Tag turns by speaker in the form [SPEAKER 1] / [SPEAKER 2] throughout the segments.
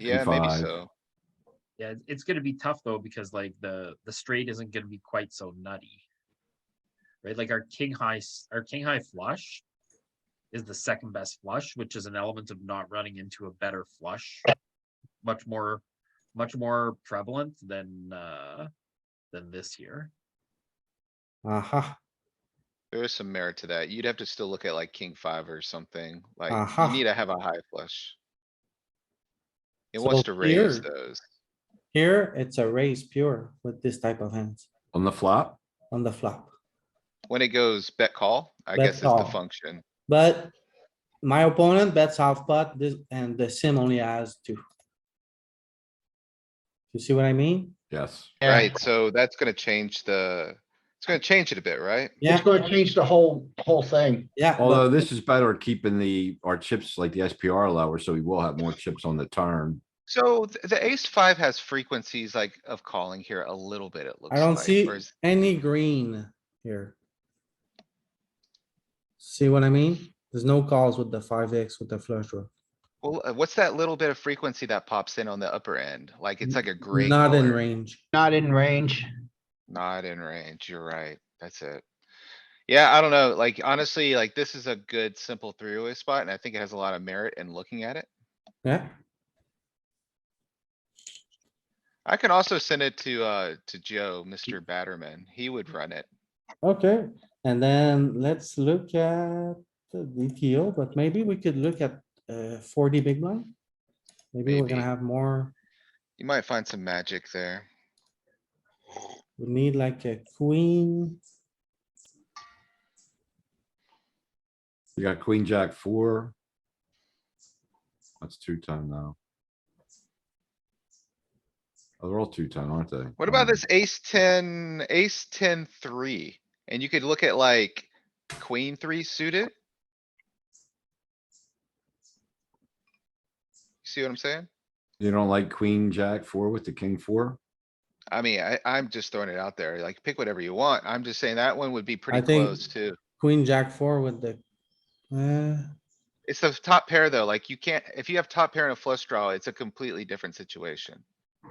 [SPEAKER 1] Yeah, maybe
[SPEAKER 2] five.
[SPEAKER 1] so.
[SPEAKER 3] Yeah, it's- it's gonna be tough though, because like the, the straight isn't gonna be quite so nutty. Right, like our king high, s- our king high flush is the second best flush, which is an element of not running into a better flush. Much more, much more prevalent than, uh, than this year.
[SPEAKER 4] Aha,
[SPEAKER 1] There is some merit to that. You'd have to still look at like king five or something, like
[SPEAKER 4] Aha.
[SPEAKER 1] you need to have a high flush. It
[SPEAKER 4] So
[SPEAKER 1] wants to raise
[SPEAKER 4] here-
[SPEAKER 1] those.
[SPEAKER 4] here it's a raise pure with this type of hands
[SPEAKER 2] On the flop,
[SPEAKER 4] on the flop.
[SPEAKER 1] When it goes bet call, I
[SPEAKER 4] Bet
[SPEAKER 1] guess is the
[SPEAKER 4] call.
[SPEAKER 1] function.
[SPEAKER 4] But my opponent bets half pot, this, and the sim only has two. You see what I mean?
[SPEAKER 2] yes.
[SPEAKER 5] Yeah.
[SPEAKER 1] Right, so that's gonna change the, it's gonna change it a bit, right?
[SPEAKER 4] Yeah.
[SPEAKER 5] It's gonna change the whole, whole thing.
[SPEAKER 4] Yeah,
[SPEAKER 2] Although
[SPEAKER 4] but
[SPEAKER 2] this is better at keeping the, our chips like the SPR lower, so we will have more chips on the turn.
[SPEAKER 1] So th- the ace five has frequencies like of calling here a little bit, it looks
[SPEAKER 4] I
[SPEAKER 1] like.
[SPEAKER 4] don't see
[SPEAKER 1] whereas-
[SPEAKER 4] any green here. See what I mean? There's no calls with the five X with the flush draw.
[SPEAKER 1] Well, uh, what's that little bit of frequency that pops in on the upper end? Like, it's like a gray.
[SPEAKER 4] Not in
[SPEAKER 1] color.
[SPEAKER 4] range.
[SPEAKER 5] Not in range.
[SPEAKER 1] Not in range, you're right, that's it. Yeah, I don't know, like honestly, like this is a good simple three-way spot and I think it has a lot of merit in looking at it.
[SPEAKER 4] Yeah,
[SPEAKER 1] I can also send it to, uh, to Joe, Mr. Batterman, he would run it.
[SPEAKER 4] okay. And then let's look at the DTO, but maybe we could look at uh forty big blind. Maybe we're
[SPEAKER 1] Maybe.
[SPEAKER 4] gonna have more,
[SPEAKER 1] You might find some magic there.
[SPEAKER 4] we need like a queen.
[SPEAKER 2] You got queen, jack, four. That's two tone now. Oh, They're all two tone, aren't they? Um,
[SPEAKER 1] What about this ace ten, ace ten three? And you could look at like queen three suited? See what I'm saying?
[SPEAKER 2] You don't like queen, jack, four with the king, four?
[SPEAKER 1] I mean, I, I'm just throwing it out there, like, pick whatever you want. I'm just saying that one would be pretty
[SPEAKER 4] think-
[SPEAKER 1] close too.
[SPEAKER 4] Queen, jack four with the, uh,
[SPEAKER 1] It's the top pair though, like you can't, if you have top pair and a flush draw, it's a completely different situation.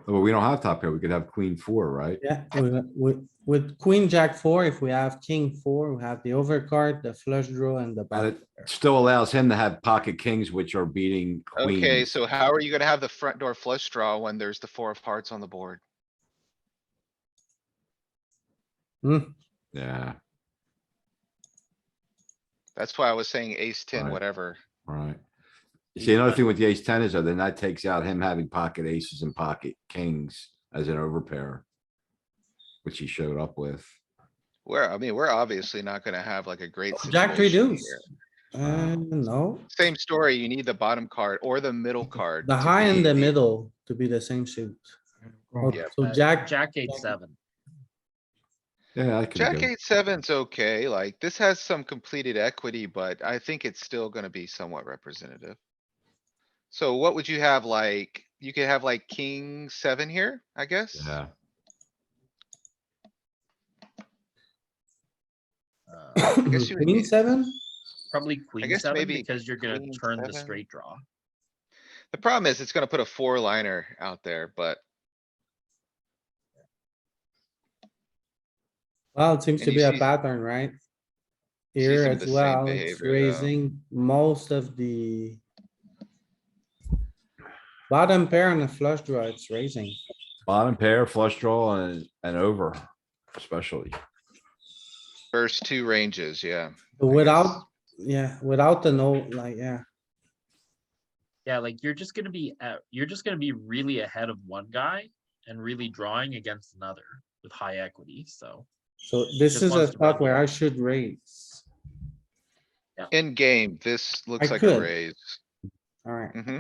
[SPEAKER 2] Well, we don't have top pair. We could have queen, four, right?
[SPEAKER 4] yeah, with, with, with queen, jack four, if we have king four, we have the overcard, the flush draw and the
[SPEAKER 2] But
[SPEAKER 4] bad.
[SPEAKER 2] it still allows him to have pocket kings, which are beating
[SPEAKER 1] Okay,
[SPEAKER 2] queens.
[SPEAKER 1] so how are you gonna have the front door flush draw when there's the four of hearts on the board?
[SPEAKER 2] Yeah,
[SPEAKER 1] That's why I was saying ace ten,
[SPEAKER 2] Right.
[SPEAKER 1] whatever.
[SPEAKER 2] right. You See, another thing with the ace ten is though, then that takes out him having pocket aces and pocket kings as an overpair. Which he showed up with.
[SPEAKER 1] We're, I mean, we're obviously not gonna have like a great.
[SPEAKER 4] Jack three
[SPEAKER 1] situation
[SPEAKER 4] deuce.
[SPEAKER 1] here.
[SPEAKER 4] Uh, no,
[SPEAKER 1] Same story, you need the bottom card or the middle card.
[SPEAKER 4] the
[SPEAKER 1] to
[SPEAKER 4] high and
[SPEAKER 1] be
[SPEAKER 4] the middle to be the same suit. Oh,
[SPEAKER 1] Yeah.
[SPEAKER 4] So
[SPEAKER 3] Uh,
[SPEAKER 4] jack,
[SPEAKER 3] Jack eight,
[SPEAKER 4] Jack-
[SPEAKER 3] seven.
[SPEAKER 2] Yeah, I could
[SPEAKER 1] Jack
[SPEAKER 2] go.
[SPEAKER 1] eight seven's okay, like this has some completed equity, but I think it's still gonna be somewhat representative. So what would you have like, you could have like king seven here, I guess?
[SPEAKER 2] Yeah,
[SPEAKER 3] Uh,
[SPEAKER 1] guess you would
[SPEAKER 4] queen
[SPEAKER 1] need-
[SPEAKER 4] seven?
[SPEAKER 3] Probably queen
[SPEAKER 1] guess
[SPEAKER 3] seven,
[SPEAKER 1] maybe
[SPEAKER 3] because you're gonna
[SPEAKER 1] queen
[SPEAKER 3] turn the
[SPEAKER 1] seven.
[SPEAKER 3] straight draw.
[SPEAKER 1] The problem is it's gonna put a four liner out there, but
[SPEAKER 4] Well, it seems
[SPEAKER 1] And
[SPEAKER 4] to
[SPEAKER 1] you
[SPEAKER 4] be a
[SPEAKER 1] see-
[SPEAKER 4] pattern, right?
[SPEAKER 1] see
[SPEAKER 4] Here
[SPEAKER 1] some of
[SPEAKER 4] as
[SPEAKER 1] the same
[SPEAKER 4] well, it's
[SPEAKER 1] behavior, though.
[SPEAKER 4] raising most of the bottom pair and the flush draw, it's raising.
[SPEAKER 2] bottom pair, flush draw and, and over especially.
[SPEAKER 1] first two ranges, yeah.
[SPEAKER 4] But
[SPEAKER 1] guess.
[SPEAKER 4] without, yeah, without the note, like, yeah,
[SPEAKER 3] Yeah, like you're just gonna be at, you're just gonna be really ahead of one guy and really drawing against another with high equity. So
[SPEAKER 4] so this
[SPEAKER 3] Just
[SPEAKER 4] is a
[SPEAKER 3] wants to
[SPEAKER 4] spot
[SPEAKER 3] bet
[SPEAKER 4] where I
[SPEAKER 3] more.
[SPEAKER 4] should raise.
[SPEAKER 1] In game, this looks
[SPEAKER 4] I
[SPEAKER 1] like a
[SPEAKER 4] could.
[SPEAKER 1] raise.
[SPEAKER 4] Alright,
[SPEAKER 1] hmm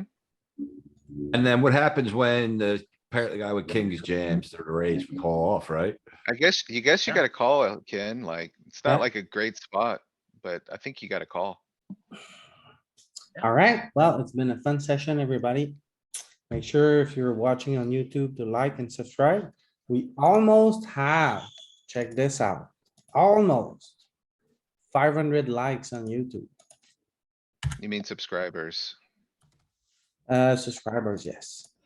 [SPEAKER 2] And then what happens when the, apparently guy with kings jams, the raise, we call off, right?
[SPEAKER 1] I guess, you guess you
[SPEAKER 3] Yeah.
[SPEAKER 1] gotta call, it, Ken, like, it's
[SPEAKER 4] Yeah.
[SPEAKER 1] not like a great spot, but I think you gotta call.
[SPEAKER 4] alright, well, it's been a fun session, everybody. Make sure if you're watching on YouTube to like and subscribe. We almost have, check this out, almost five hundred likes on YouTube.
[SPEAKER 1] You mean subscribers.
[SPEAKER 4] Uh, subscribers, yes.